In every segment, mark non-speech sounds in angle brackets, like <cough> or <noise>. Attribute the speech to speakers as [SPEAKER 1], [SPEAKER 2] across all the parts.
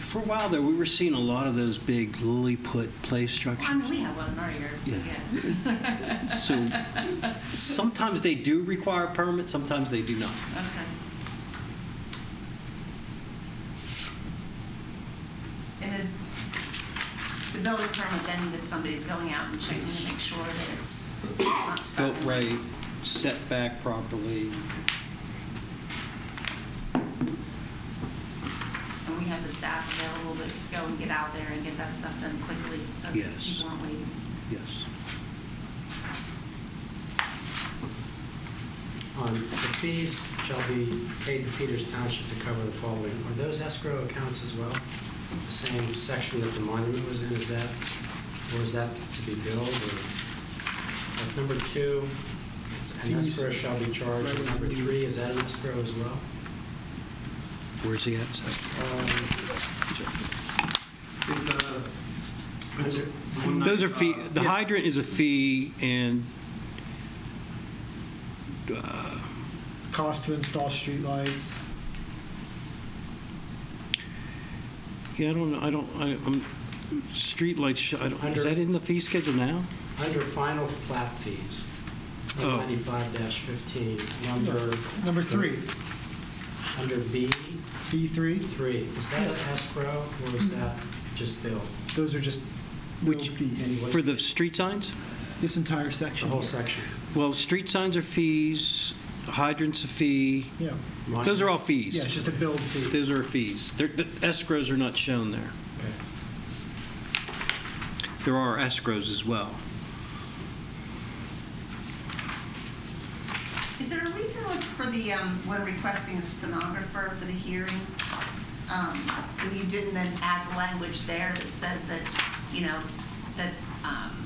[SPEAKER 1] for a while there, we were seeing a lot of those big lily-put play
[SPEAKER 2] Well, I mean, we
[SPEAKER 1] structures.
[SPEAKER 2] have one in our yard, so
[SPEAKER 1] Yeah.
[SPEAKER 2] yeah.
[SPEAKER 1] <laughs> So sometimes they do require a permit, sometimes they do not.
[SPEAKER 2] Okay. And is, the building permit then means that somebody's going out and checking to make sure that it's, it's not stuck.
[SPEAKER 1] Built right, set back properly.
[SPEAKER 2] And we have the staff available to go and get out there and get that stuff done quickly, so that
[SPEAKER 1] Yes.
[SPEAKER 2] people aren't waiting.
[SPEAKER 1] Yes.
[SPEAKER 3] On the fees shall be paid to Peters Township to cover the following. Are those escrow accounts as well? The same section that the monument was in, is that, or is that to be billed? or- Like number two, it's an
[SPEAKER 1] Fees.
[SPEAKER 3] escrow shall be charged. Is Number three, is that an escrow as well?
[SPEAKER 1] Where's he at? Sorry.
[SPEAKER 4] It's uh, it's
[SPEAKER 3] Under-
[SPEAKER 4] one
[SPEAKER 1] Those are
[SPEAKER 4] ninety-
[SPEAKER 1] fee,
[SPEAKER 4] uh,
[SPEAKER 1] the
[SPEAKER 4] yeah.
[SPEAKER 1] hydrant is a fee and, uh,
[SPEAKER 5] Cost to install streetlights.
[SPEAKER 1] yeah, I don't, know. I don't, I- I'm, streetlights, sh- I don't, is that in the fee schedule now?
[SPEAKER 3] Under final plat fees,
[SPEAKER 1] Oh.
[SPEAKER 3] 95-15, number...
[SPEAKER 5] Number three,
[SPEAKER 3] Under B,
[SPEAKER 5] B3,
[SPEAKER 3] three, is that an escrow or is that just billed?
[SPEAKER 5] those are just billed
[SPEAKER 1] Which-
[SPEAKER 5] fees,
[SPEAKER 3] Anyway.
[SPEAKER 1] For the street signs?
[SPEAKER 5] this entire
[SPEAKER 3] The
[SPEAKER 5] section.
[SPEAKER 3] whole section?
[SPEAKER 1] Well, street signs are fees, hydrants a fee.
[SPEAKER 5] Yeah,
[SPEAKER 1] Those are all fees.
[SPEAKER 5] yeah, it's just a billed fee.
[SPEAKER 1] Those are fees. They're- The escrows are not shown there.
[SPEAKER 3] Okay.
[SPEAKER 1] There are escrows as well.
[SPEAKER 2] Is there a reason for the, um, when requesting a stenographer for the hearing, um, if you didn't then add the language there that says that, you know, that um,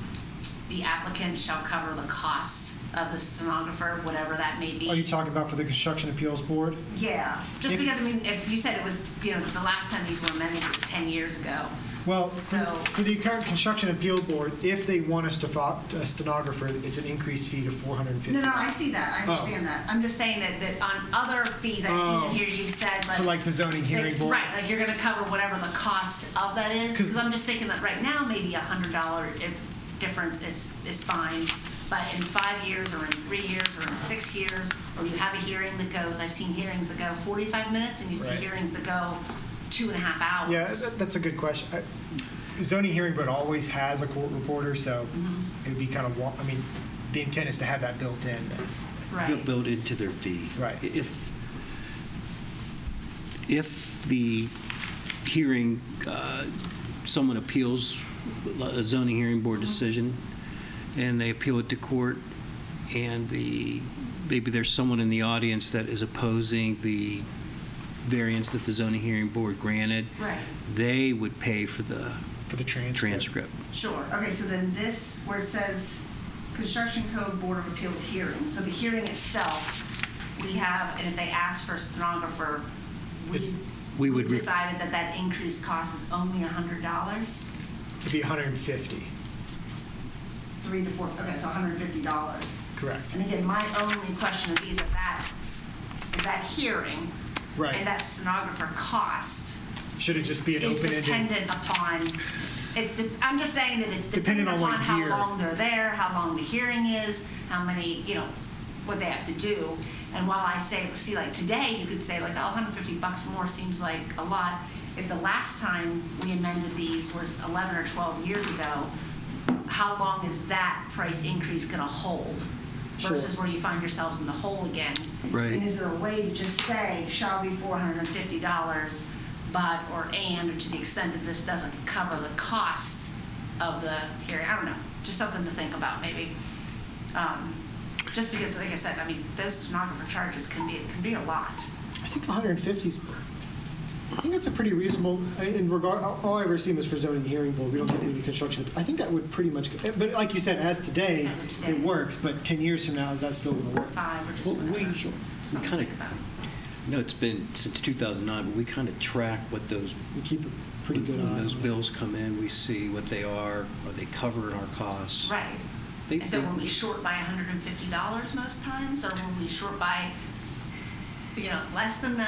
[SPEAKER 2] the applicant shall cover the cost of the stenographer, whatever that may be?
[SPEAKER 5] Are you talking about for the Construction Appeals Board?
[SPEAKER 2] Yeah, just
[SPEAKER 5] If-
[SPEAKER 2] because, I mean, if you said it was, you know, the last time these were amended was 10 years ago.
[SPEAKER 5] Well, for
[SPEAKER 2] So-
[SPEAKER 5] for the current Construction Appeal Board, if they want us to fo- a stenographer, it's an increased fee to 450.
[SPEAKER 2] No, no, I see that, I
[SPEAKER 5] Oh.
[SPEAKER 2] understand that. I'm just saying that, that on other fees I've
[SPEAKER 5] Oh.
[SPEAKER 2] seen here, you've said like.
[SPEAKER 5] For like the zoning hearing
[SPEAKER 2] Like,
[SPEAKER 5] board.
[SPEAKER 2] Right, like you're gonna cover whatever the cost of that is,
[SPEAKER 5] 'Cause-
[SPEAKER 2] because I'm just thinking that right now, maybe a hundred dollar difference is, is fine. But in five years, or in three years, or in six years, or you have a hearing that goes, I've seen hearings that go forty-five minutes, and you see
[SPEAKER 5] Right.
[SPEAKER 2] hearings that go two and a half hours.
[SPEAKER 5] Yeah, that- that's a good question. I- Zoning hearing board always has a court reporter, so
[SPEAKER 2] Mm-hmm.
[SPEAKER 5] it'd be kind of, wa- I mean, the intent is to have that built in.
[SPEAKER 1] Built-
[SPEAKER 2] Right,
[SPEAKER 1] Built into their fee.
[SPEAKER 5] Right.
[SPEAKER 1] If, if the hearing, uh, someone appeals a zoning hearing board decision, and they appeal it to court, and the, maybe there's someone in the audience that is opposing the variance that the zoning hearing board granted,
[SPEAKER 2] right,
[SPEAKER 1] they would pay for the
[SPEAKER 5] For the transcript.
[SPEAKER 1] transcript.
[SPEAKER 2] sure.
[SPEAKER 6] Okay, so then this, where it says Construction Code Board of Appeals hearing,
[SPEAKER 2] So the hearing itself, we have, and if they ask for a stenographer, we.
[SPEAKER 5] It's-
[SPEAKER 1] We would re-
[SPEAKER 2] Decided that that increased cost is only a hundred dollars?
[SPEAKER 5] It'd be 150,
[SPEAKER 6] three to four, okay, so $150.
[SPEAKER 5] correct.
[SPEAKER 6] And
[SPEAKER 2] And again, my only question of these at that, is that hearing.
[SPEAKER 5] Right.
[SPEAKER 2] And that stenographer cost.
[SPEAKER 5] Should it just be an
[SPEAKER 2] Is
[SPEAKER 5] open-ended?
[SPEAKER 2] dependent upon, it's, the- I'm just saying that it's dependent
[SPEAKER 5] Dependent on what
[SPEAKER 2] upon how
[SPEAKER 5] year.
[SPEAKER 2] long they're there, how long the hearing is, how many, you know, what they have to do. And while I say, see, like today, you could say like, oh, 150 bucks more seems like a lot. If the last time we amended these was 11 or 12 years ago, how long is that price increase going to hold?
[SPEAKER 5] Sure.
[SPEAKER 2] Versus where you find yourselves in the hole again.
[SPEAKER 6] And
[SPEAKER 1] Right.
[SPEAKER 6] is there a way to just say shall be $400?
[SPEAKER 2] $450, but, or and, or to the extent that this doesn't cover the cost of the hearing, I don't know, just something to think about, maybe. Um, Just because, like I said, I mean, those stenographer charges can be, can be a lot.
[SPEAKER 5] I think 150 is, I think that's a pretty reasonable, in regard, all I ever seen was for zoning hearing board, we don't have to do the construction. I think that would pretty much, eh, but like you said, as today,
[SPEAKER 2] As of today.
[SPEAKER 5] it works, but 10 years from now, is that still going to work?
[SPEAKER 2] Five or just
[SPEAKER 1] Well,
[SPEAKER 2] whatever.
[SPEAKER 1] we-
[SPEAKER 2] Something
[SPEAKER 1] we
[SPEAKER 2] to
[SPEAKER 1] kinda-
[SPEAKER 2] think about.
[SPEAKER 1] No, it's been since 2009, but we kind of track what those,
[SPEAKER 5] We keep a pretty good eye
[SPEAKER 1] when
[SPEAKER 5] on
[SPEAKER 1] those
[SPEAKER 5] it.
[SPEAKER 1] bills come in, we see what they are, are they covering our costs?
[SPEAKER 2] Right.
[SPEAKER 1] They-
[SPEAKER 2] And so
[SPEAKER 1] they-
[SPEAKER 2] were we short by $150 most times, or were we short by, you know, less than that?